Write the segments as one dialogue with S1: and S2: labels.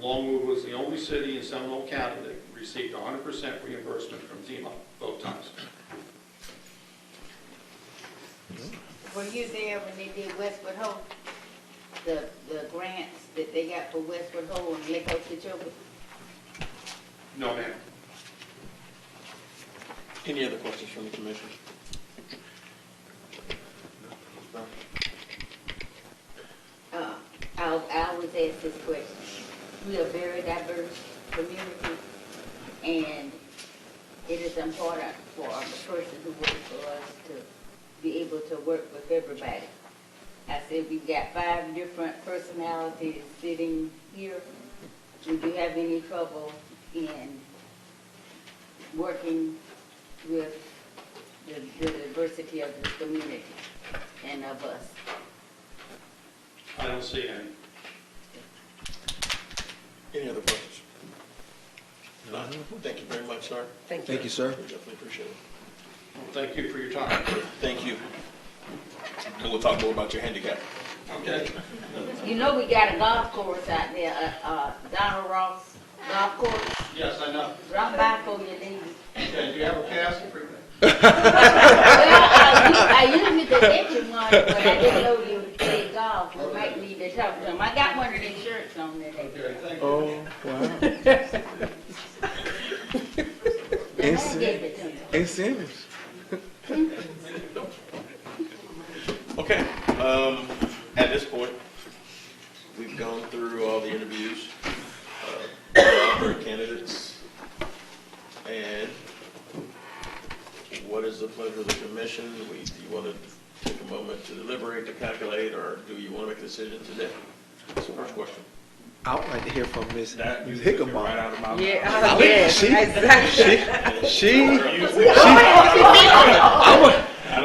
S1: Longwood was the only city in Seminole County that received 100% reimbursement from FEMA both times.
S2: Were you there when they did Westwood Ho? The, the grants that they got for Westwood Ho and Lake Okeechobee?
S1: No, ma'am.
S3: Any other questions from the commission? No.
S2: Uh, I, I always ask this question. We are a very diverse community, and it is important for the person who works for us to be able to work with everybody. I said, we've got five different personalities sitting here. Would you have any trouble in working with the, the diversity of this community and of us?
S1: I don't see any.
S3: Any other questions? None. Thank you very much, sir.
S4: Thank you. Thank you, sir.
S3: We Definitely appreciate it.
S1: Well, Thank you for your time.
S3: Thank you. And we'll talk more about your handicap.
S1: Okay?
S2: You know we got a golf course out there, uh, uh, Donald Ross Golf Course.
S1: Yes, I know.
S2: Drop by for your ladies.
S1: Okay, do you have a pass?
S2: Well, I, u- I usually could get you one, but I didn't know you played golf. We might need to talk to him. I got one of these shirts on today.
S1: Okay, thank you.
S4: Oh, wow.
S2: The
S4: Yes,
S2: man gave it to me.
S4: It's in it.
S3: Okay, um, at this point, we've gone through all the interviews, uh, for candidates. And what is the pleasure of the commission? We, do you want to take a moment to deliberate, to calculate, or do you want to make a decision today? That's the first question.
S4: I would like to hear from Miss
S3: That- you took it Right
S4: Hickamar.
S3: out of my mouth.
S5: Yeah, oh, yes,
S4: She-
S5: exactly.
S4: She, she,
S3: You-
S4: I would,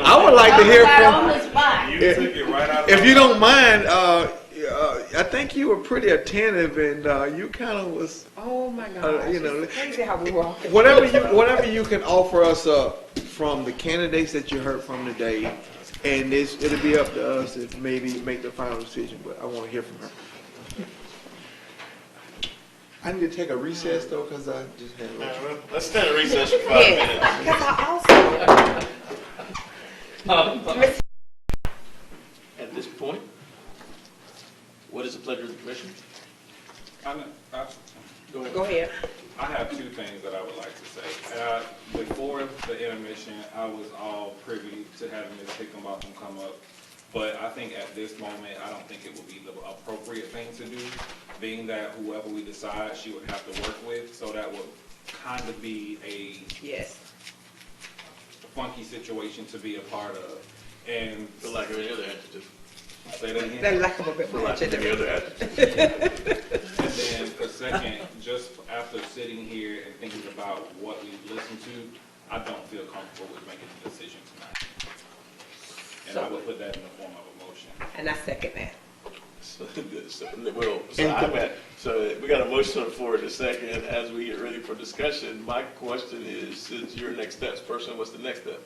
S4: I would like to hear
S2: Right on
S4: from,
S2: the spot.
S3: You took it right out of.
S4: if
S3: my
S4: you
S3: mouth.
S4: don't mind, uh, uh, I think you were pretty attentive and, uh, you kinda was,
S5: Oh my
S4: Uh,
S5: God!
S4: you know,
S5: it's crazy how we walk.
S4: whatever you, whatever you can offer us, uh, from the candidates that you heard from today. And it's, it'll be up to us to maybe make the final decision, but I wanna hear from her. I need to take a recess though, cause I just had. a little-
S3: All right, well, Let's stand in recess for five minutes.
S5: Yeah, because I also.
S3: At this point, what is the pleasure of the commission?
S6: I, I-
S3: Go ahead.
S5: Go ahead.
S6: I have two things that I would like to say. Uh, Before the intermission, I was all privy to having Ms. Hickinbotham come up, but I think at this moment, I don't think it would be the appropriate thing to do, being that whoever we decide, she would have to work with, so that would kind of be a
S5: Yes.
S6: funky situation to be a part of. And
S3: For lack of any other adjective.
S6: say that again.
S5: That lack of a bit more.
S3: other adjective.
S6: And then for second, just after sitting here and thinking about what we listened to, I don't feel comfortable with making a decision tonight. And I would put that in the form of a motion.
S5: And I second that.
S3: So, so, well, so I'm at- so we got a motion on the floor in a second. As we get ready for discussion, my question is, since you're next steps person, what's the next step?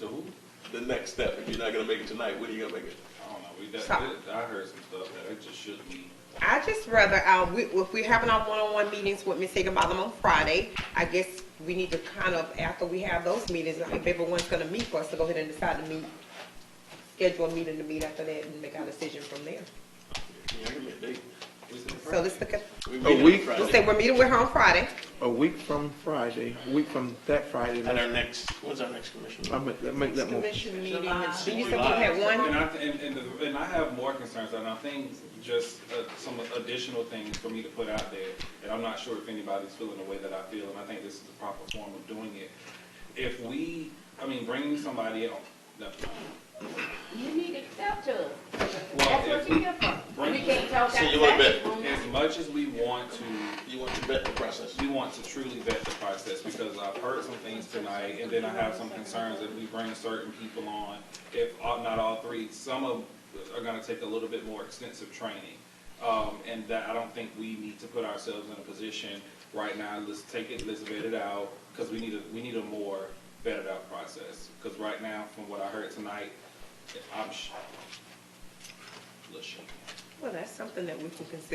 S6: To who?
S3: The next step, if you're not gonna make it tonight, when are you gonna make it?
S6: I don't know, we, that,
S5: Stop.
S6: that- I heard some stuff that it just shouldn't be.
S5: I just rather, um, we, if we're having our one-on-one meetings with Ms. Higginbotham on Friday, I guess we need to kind of, after we have those meetings, if everyone's gonna meet for us to go ahead and decide to meet, schedule a meeting to meet after that and make our decision from there.
S3: Yeah, give me a date.
S5: So let's look at,
S3: We
S4: A
S3: meet on
S4: week.
S3: Friday.
S5: let's say we're meeting with her on Friday.
S4: A week from Friday, a week from that Friday,
S3: And our next, when's our next commission?
S4: I make, that- make that move.
S5: Commission meeting,
S2: July.
S5: and she just said we had
S6: And
S5: one.
S6: I, and, and, the- and I have more concerns, and I think just, uh, some additional things for me to put out there, and I'm not sure if anybody's feeling the way that I feel, and I think this is the proper form of doing it. If we, I mean, bringing somebody else, no,
S2: You need to talk to us. That's
S6: Well,
S2: what you here for. We can't talk
S3: So you wanna
S2: outside
S3: bet?
S2: this room.
S6: as much as we want to,
S3: You want to bet the process?
S6: we want to truly vet the process, because I've heard some things tonight, and then I have some concerns that we bring certain people on, if all- not all three, some of, are gonna take a little bit more extensive training. Um, and that, I don't think we need to put ourselves in a position right now, let's take it, let's vet it out, because we need a, we need a more vetted out process. Because right now, from what I heard tonight, I'm sh- a little shaken.
S5: Well, that's something that we can consider